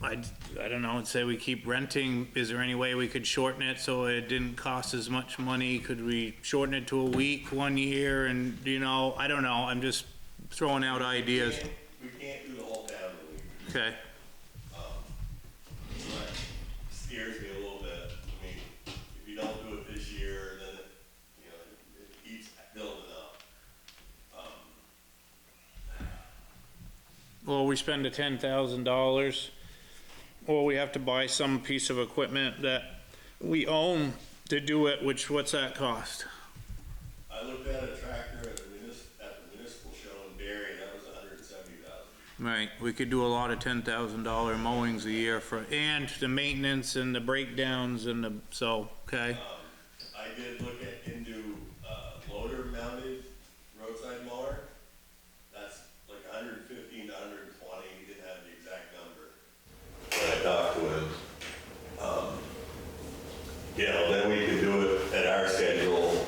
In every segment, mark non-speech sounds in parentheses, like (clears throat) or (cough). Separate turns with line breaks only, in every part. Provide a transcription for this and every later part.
I'd, I don't know, I'd say we keep renting. Is there any way we could shorten it so it didn't cost as much money? Could we shorten it to a week, one year, and, you know, I don't know, I'm just throwing out ideas.
We can't do the whole town in a week,
Okay,
but it scares me a little bit. I mean, if you don't do it this year, then, it, you know, it keeps building up.
well, we spend the ten thousand dollars, or we have to buy some piece of equipment that we own to do it, which, what's that cost?
I looked at a tractor at the municipal, at the municipal show in Barry, and that was a hundred and seventy thousand.
Right, we could do a lot of ten thousand dollar mowings a year for, and the maintenance and the breakdowns and the, so, okay?
I did look at into, uh, loader mounted roadside mower. That's like a hundred and fifteen to hundred and twenty, he didn't have the exact number. But I talked with, um, you know, then we could do it at our schedule.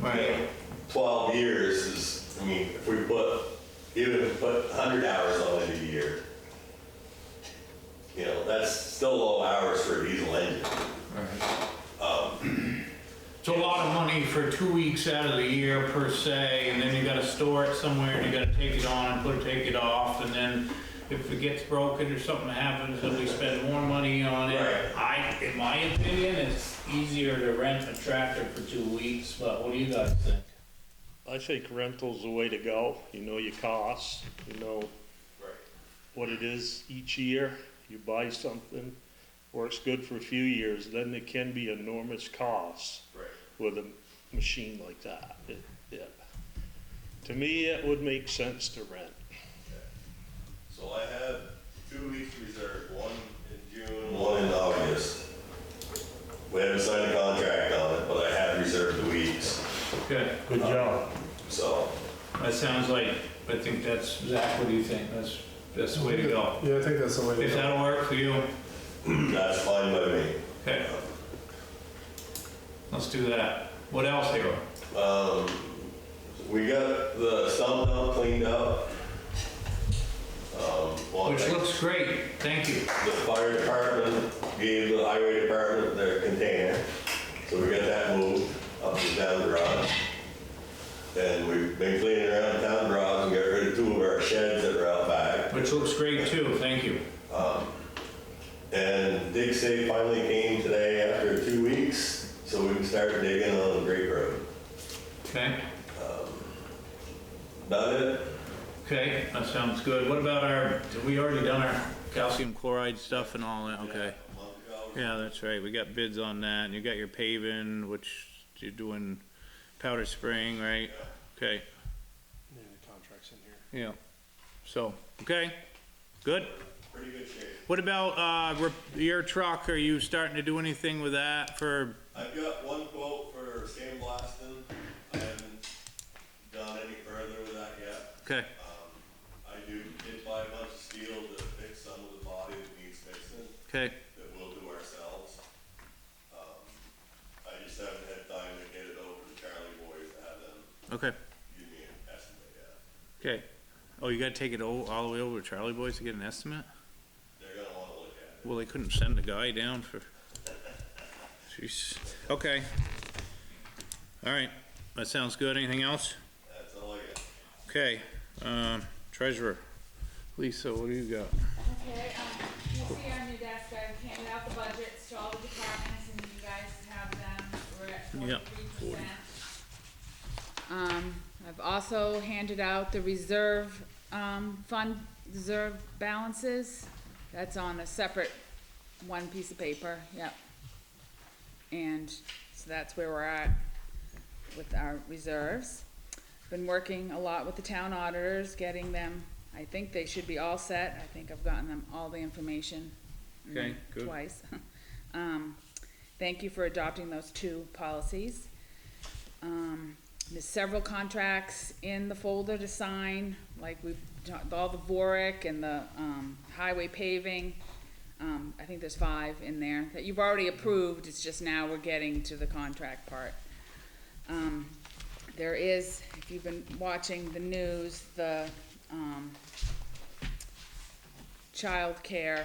Right. Twelve years is, I mean, if we put, even if we put hundred hours on it a year, you know, that's still low hours for a diesel engine.
It's a lot of money for two weeks out of the year per se, and then you gotta store it somewhere, and you gotta take it on and put, take it off, and then if it gets broken or something happens, then we spend more money on it.
Right.
I, in my opinion, it's easier to rent a tractor for two weeks, but what do you guys think?
I think rental's the way to go. You know your costs, you know
Right.
what it is each year. You buy something, works good for a few years, then there can be enormous costs
Right.
with a machine like that. It- yeah. To me, it would make sense to rent.
So I have two weeks reserved, one in June. One in August. We haven't signed a contract on it, but I have reserved the weeks,
Good,
Good job.
so. (clears throat)
that sounds like, I think that's, Zach, what do you think? That's, that's the way to go.
Yeah, I think that's the way to
If
go.
that'll work for you,
That's fine by me.
okay. Let's do that. What else, Harold?
Um, we got the sump dump cleaned up. Um, well,
Which
the-
looks great, thank you.
the fire department gave the highway department their container, so we got that moved up to town garage. And we've been cleaning around town garage and got rid of two of our sheds that were out back.
Which looks great too, thank you.
And dig safe finally came today after two weeks, so we can start digging on Great Road.
Okay,
Done it?
okay, that sounds good. What about our, did we already done our calcium chloride stuff and all that? Okay.
A month ago.
Yeah, that's right. We got bids on that and you got your paving, which you're doing Powder Spring, right? Okay,
Yeah, the contract's in here.
yeah. So, okay, good.
Pretty good shape.
What about, uh, rep- your truck? Are you starting to do anything with that for,
I've got one quote for sandblasting. I haven't done any further with that yet.
okay,
I do, did buy a bunch of steel to fix some of the body that needs fixing,
okay,
that we'll do ourselves. Um, I just haven't had time to get it over to Charlie Boys to have them
okay,
give me an estimate yet.
okay. Oh, you gotta take it all, all the way over to Charlie Boys to get an estimate?
They're gonna wanna look at it.
Well, they couldn't send the guy down for. Jeez. Okay. All right. That sounds good. Anything else?
That's all I got.
Okay. Um, treasurer. Lisa, what do you got?
Okay, um, you see on your desk, I've handed out the budgets to all the departments and you guys have them, we're at
Yeah,
forty-three percent. Um, I've also handed out the reserve, um, fund reserve balances, that's on a separate one piece of paper, yep. And so that's where we're at with our reserves. Been working a lot with the town auditors, getting them, I think they should be all set, I think I've gotten them all the information. mm,
Okay, good.
Twice. (laughs) Um, thank you for adopting those two policies. Um, there's several contracts in the folder to sign, like we've, done- all the Vorick and the, um, highway paving. Um, I think there's five in there that you've already approved, it's just now we're getting to the contract part. Um, there is, if you've been watching the news, the, um, childcare